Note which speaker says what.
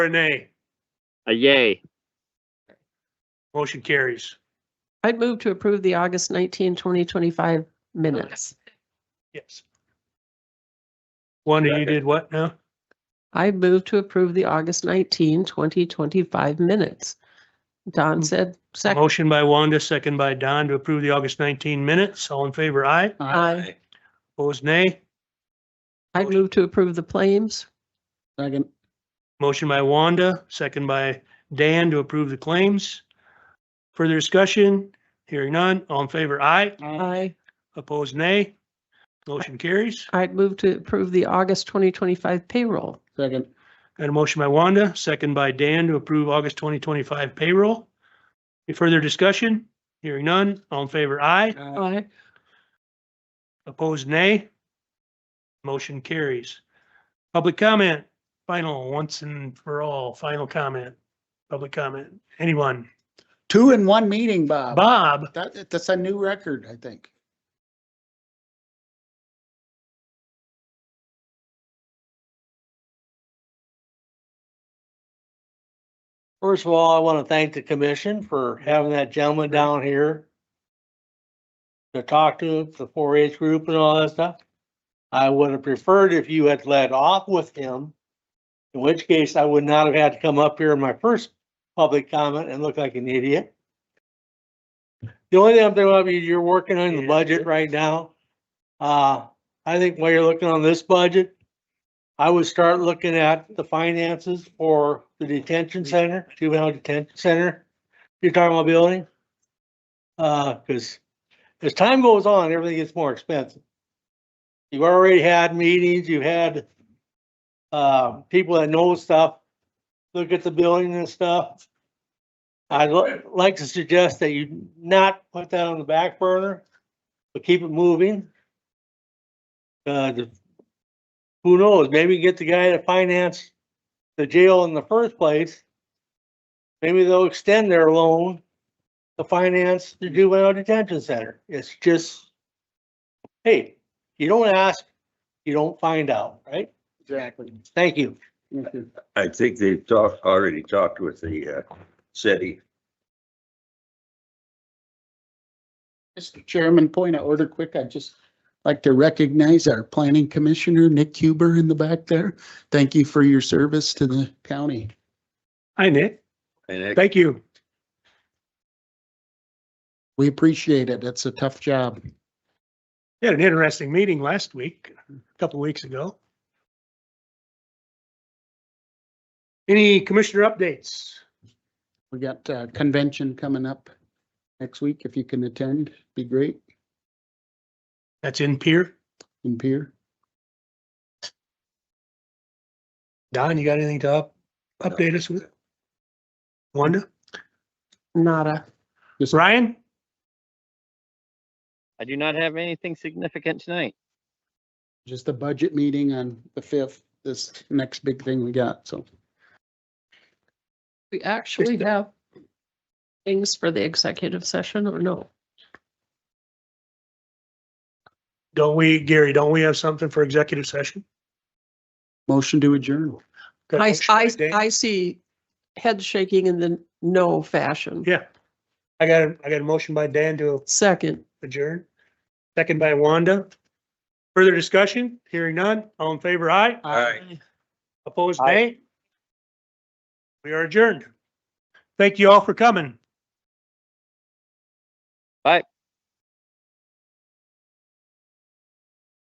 Speaker 1: or a nay?
Speaker 2: A yay.
Speaker 1: Motion carries.
Speaker 3: I'd move to approve the August 19, 2025 minutes.
Speaker 1: Yes. Wanda, you did what now?
Speaker 3: I move to approve the August 19, 2025 minutes. Don said second.
Speaker 1: Motion by Wanda, second by Don to approve the August 19 minutes. All in favor, aye.
Speaker 3: Aye.
Speaker 1: Opposed, nay.
Speaker 3: I'd move to approve the claims.
Speaker 4: Second.
Speaker 1: Motion by Wanda, second by Dan to approve the claims. Further discussion? Hearing none. All in favor, aye.
Speaker 3: Aye.
Speaker 1: Opposed, nay. Motion carries.
Speaker 3: I'd move to approve the August 2025 payroll.
Speaker 4: Second.
Speaker 1: Got a motion by Wanda, second by Dan to approve August 2025 payroll. Any further discussion? Hearing none. All in favor, aye.
Speaker 4: Aye.
Speaker 3: Aye.
Speaker 1: Opposed, nay. Motion carries. Public comment, final, once and for all, final comment, public comment, anyone?
Speaker 4: Two in one meeting,
Speaker 1: Oh.
Speaker 4: Bob.
Speaker 1: Bob,
Speaker 4: That, that's a new record, I think.
Speaker 5: First of all, I want to thank the commission for having that gentleman down here to talk to the four H group and all that stuff. I would have preferred if you had led off with him, in which case I would not have had to come up here in my first public comment and look like an idiot. The only thing I'm thinking of is you're working on the budget right now. Uh, I think while you're looking on this budget, I would start looking at the finances for the detention center, juvenile detention center. You're talking about building? Uh, cause as time goes on, everything gets more expensive. You've already had meetings, you've had uh, people that know stuff, look at the building and stuff. I'd li- like to suggest that you not put that on the back burner, but keep it moving. Uh, the who knows, maybe get the guy to finance the jail in the first place. Maybe they'll extend their loan to finance the juvenile detention center. It's just, hey, you don't ask, you don't find out, right?
Speaker 4: Exactly.
Speaker 5: Thank you.
Speaker 4: Thank you.
Speaker 6: I think they've talked, already talked with the uh, city.
Speaker 4: Mr. Chairman, point of order quick. I'd just like to recognize our planning commissioner, Nick Huber in the back there. Thank you for your service to the county.
Speaker 1: hi Nick,
Speaker 6: And it-
Speaker 1: thank you.
Speaker 4: We appreciate it. It's a tough job.
Speaker 1: We Had an interesting meeting last week, a couple of weeks ago. Any commissioner updates?
Speaker 4: We got a convention coming up next week. If you can attend, be great
Speaker 1: That's in Pier.
Speaker 4: in Pier.
Speaker 1: Don, you got anything to up, update us with? Wanda,
Speaker 3: Nada.
Speaker 1: Ryan,
Speaker 2: I do not have anything significant tonight.
Speaker 4: Just a budget meeting on the fifth, this next big thing we got. So
Speaker 3: We actually have things for the executive session or no?
Speaker 1: don't we, Gary, don't we have something for executive session?
Speaker 4: motion to adjourn.
Speaker 1: Got a
Speaker 3: I,
Speaker 1: motion by
Speaker 3: I,
Speaker 1: Dan?
Speaker 3: I see head shaking in the no fashion.
Speaker 1: Yeah. I got, a- I got a motion by Dan to
Speaker 3: Second,
Speaker 1: adjourn. Second by Wanda. Further discussion? Hearing none. All in favor, aye.
Speaker 6: All right.
Speaker 1: Opposed, nay? We are adjourned. Thank you all for coming.
Speaker 2: Bye.